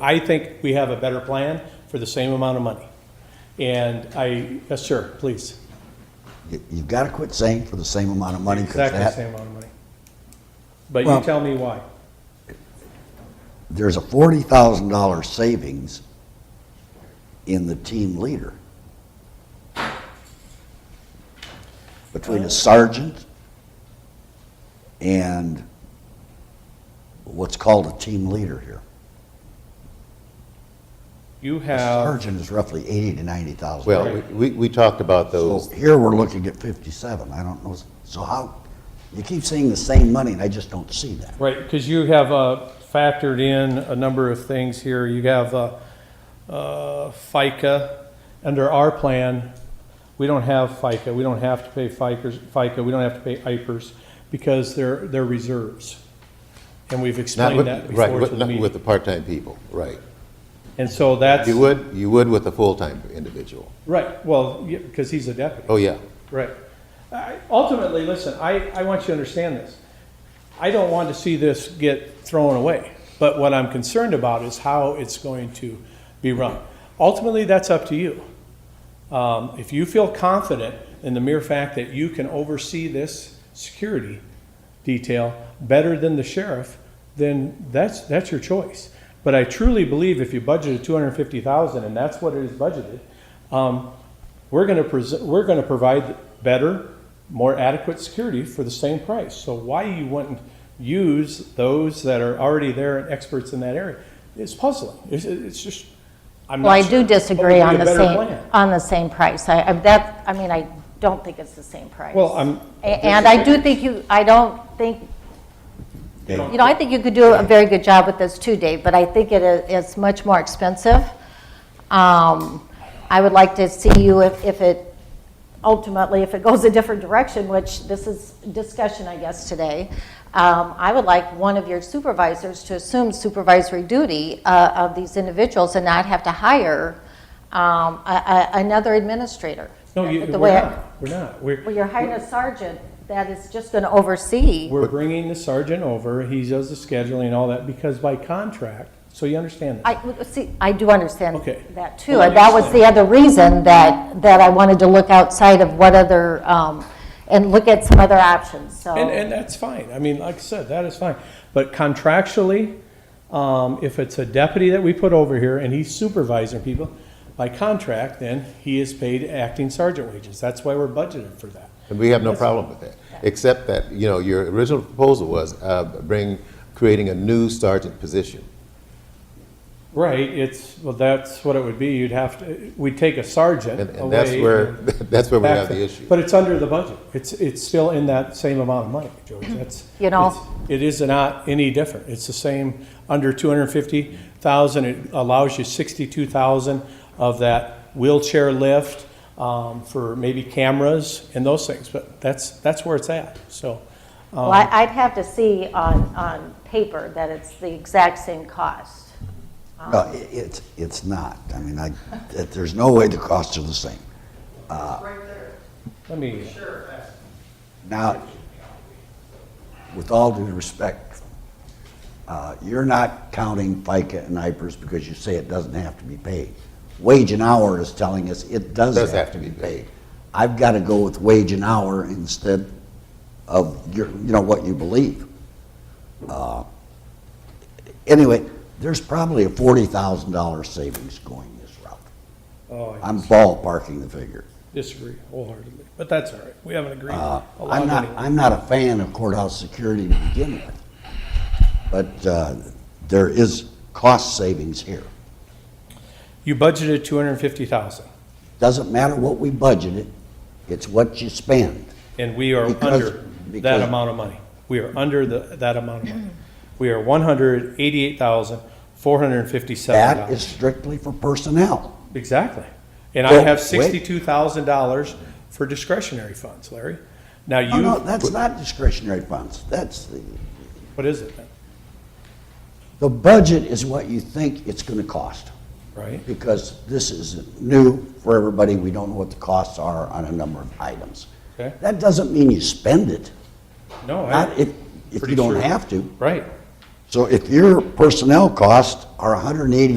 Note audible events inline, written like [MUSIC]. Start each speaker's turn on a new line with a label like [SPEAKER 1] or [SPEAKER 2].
[SPEAKER 1] I think we have a better plan for the same amount of money. And I, yes, sir, please.
[SPEAKER 2] You- You've got to quit saying for the same amount of money, because
[SPEAKER 1] Exactly the
[SPEAKER 2] that,
[SPEAKER 1] same amount of money. But you
[SPEAKER 2] Well-
[SPEAKER 1] tell me why.
[SPEAKER 2] there's a forty thousand dollar savings in the team leader. Between a sergeant and what's called a team leader here.
[SPEAKER 1] You
[SPEAKER 2] A
[SPEAKER 1] have,
[SPEAKER 2] sergeant is roughly eighty to ninety thousand.
[SPEAKER 3] Well, we, we talked about
[SPEAKER 2] So
[SPEAKER 3] those,
[SPEAKER 2] here we're looking at fifty-seven, I don't know, so how, you keep seeing the same money and I just don't see that.
[SPEAKER 1] right, because you have uh, factored in a number of things here. You have uh, uh, FICA. Under our plan, we don't have FICA. We don't have to pay FICAs- FICA. We don't have to pay IPers because they're, they're reserves. And we've
[SPEAKER 3] not
[SPEAKER 1] explained
[SPEAKER 3] with,
[SPEAKER 1] that before
[SPEAKER 3] right,
[SPEAKER 1] to
[SPEAKER 3] with-
[SPEAKER 1] the
[SPEAKER 3] not with
[SPEAKER 1] meeting.
[SPEAKER 3] the part-time people, right.
[SPEAKER 1] And so that's.
[SPEAKER 3] You would, you would with a full-time individual.
[SPEAKER 1] Right, well, because he's a deputy,
[SPEAKER 3] Oh, yeah.
[SPEAKER 1] right. I- Ultimately, listen, I, I want you to understand this. I don't want to see this get thrown away, but what I'm concerned about is how it's going to be run. Ultimately, that's up to you. Um, If you feel confident in the mere fact that you can oversee this security detail better than the sheriff, then that's, that's your choice. But I truly believe if you budgeted two hundred and fifty thousand, and that's what it is budgeted, um, we're gonna pres- we're gonna provide better, more adequate security for the same price. So why you wouldn't use those that are already there and experts in that area is puzzling. It's, it's just, I'm not
[SPEAKER 4] Well, I
[SPEAKER 1] sure.
[SPEAKER 4] do
[SPEAKER 1] But we
[SPEAKER 4] disagree
[SPEAKER 1] need
[SPEAKER 4] on
[SPEAKER 1] a
[SPEAKER 4] the
[SPEAKER 1] better
[SPEAKER 4] same,
[SPEAKER 1] plan.
[SPEAKER 4] on the same price. I, I- that, I mean, I don't think it's the same price.
[SPEAKER 1] Well, I'm-
[SPEAKER 4] A- And I do think you, I don't think, you
[SPEAKER 2] Okay.
[SPEAKER 4] know, I think you could do a very good job with this too, Dave, but I think it is, it's much more expensive. Um, I would like to see you if, if it, ultimately, if it goes a different direction, which this is discussion, I guess, today, um, I would like one of your supervisors to assume supervisory duty uh, of these individuals and not have to hire um, a- a- another administrator.
[SPEAKER 1] No, you,
[SPEAKER 4] The
[SPEAKER 1] we're
[SPEAKER 4] way I-
[SPEAKER 1] not, we're not. We're,
[SPEAKER 4] Well, you're hiring a sergeant that is just going to oversee.
[SPEAKER 1] We're bringing the sergeant over, he does the scheduling and all that, because by contract, so you understand that.
[SPEAKER 4] I, well, see, I do understand
[SPEAKER 1] Okay.
[SPEAKER 4] that too.
[SPEAKER 1] Well, I
[SPEAKER 4] And that was the
[SPEAKER 1] understand.
[SPEAKER 4] other reason that, that I wanted to look outside of what other, um, and look at some other options, so.
[SPEAKER 1] And, and that's fine, I mean, like I said, that is fine. But contractually, um, if it's a deputy that we put over here and he's supervising people, by contract, then he is paid acting sergeant wages. That's why we're budgeted for that.
[SPEAKER 3] And we have no problem with that, except that, you know, your original proposal was uh, bring, creating a new sergeant position.
[SPEAKER 1] Right, it's, well, that's what it would be, you'd have to, we'd take a sergeant
[SPEAKER 3] And,
[SPEAKER 1] away.
[SPEAKER 3] and that's where, [LAUGHS]
[SPEAKER 1] and-
[SPEAKER 3] that's where we have the
[SPEAKER 1] Backfill.
[SPEAKER 3] issue.
[SPEAKER 1] But it's under the budget. It's, it's still in that same amount of money, George. That's.
[SPEAKER 4] Mm-hmm. You know.
[SPEAKER 1] it's- It is not any different. It's the same, under two hundred and fifty thousand, it allows you sixty-two thousand of that wheelchair lift, um, for maybe cameras and those things, but that's, that's where it's at, so.
[SPEAKER 4] Well, I- I'd have to see on, on paper that it's the exact same cost.
[SPEAKER 2] No, i- it's, it's not. I mean, I, that- there's no way the costs are the same.
[SPEAKER 1] Let me,
[SPEAKER 2] Now, with all due respect, uh, you're not counting FICA and IPERS because you say it doesn't have to be paid. Wage and hour is telling us it does have to be paid. I've got to go with wage and hour instead of your, you know, what you believe. Uh, Anyway, there's probably a forty thousand dollar savings going this route.
[SPEAKER 1] oh, I
[SPEAKER 2] I'm ballparking the figure.
[SPEAKER 1] disagree wholeheartedly, but that's all right. We haven't agreed.
[SPEAKER 2] Uh,
[SPEAKER 1] a lot
[SPEAKER 2] I'm not,
[SPEAKER 1] anyway.
[SPEAKER 2] I'm not a fan of courthouse security to begin with, but uh, there is cost savings here.
[SPEAKER 1] You budgeted two hundred and fifty thousand,
[SPEAKER 2] Doesn't matter what we budgeted, it's what you spend.
[SPEAKER 1] and we are
[SPEAKER 2] Because-
[SPEAKER 1] under that
[SPEAKER 2] because-
[SPEAKER 1] amount of money. We are under the, that amount of money. We are one hundred eighty-eight thousand, four hundred and fifty-seven
[SPEAKER 2] That is
[SPEAKER 1] dollars.
[SPEAKER 2] strictly for personnel.
[SPEAKER 1] Exactly. And I
[SPEAKER 2] Well,
[SPEAKER 1] have
[SPEAKER 2] wait.
[SPEAKER 1] sixty-two thousand dollars for discretionary funds, Larry. Now
[SPEAKER 2] No, no,
[SPEAKER 1] you,
[SPEAKER 2] that's not discretionary funds. That's, the
[SPEAKER 1] what is it then,
[SPEAKER 2] the budget is what you think it's going to cost,
[SPEAKER 1] right?
[SPEAKER 2] because this is new for everybody. We don't know what the costs are on a number of items.
[SPEAKER 1] Okay.
[SPEAKER 2] That doesn't mean you spend it,
[SPEAKER 1] No,
[SPEAKER 2] not
[SPEAKER 1] I,
[SPEAKER 2] if, if
[SPEAKER 1] Pretty
[SPEAKER 2] you don't
[SPEAKER 1] sure.
[SPEAKER 2] have to.
[SPEAKER 1] right.
[SPEAKER 2] So if your personnel costs are 188.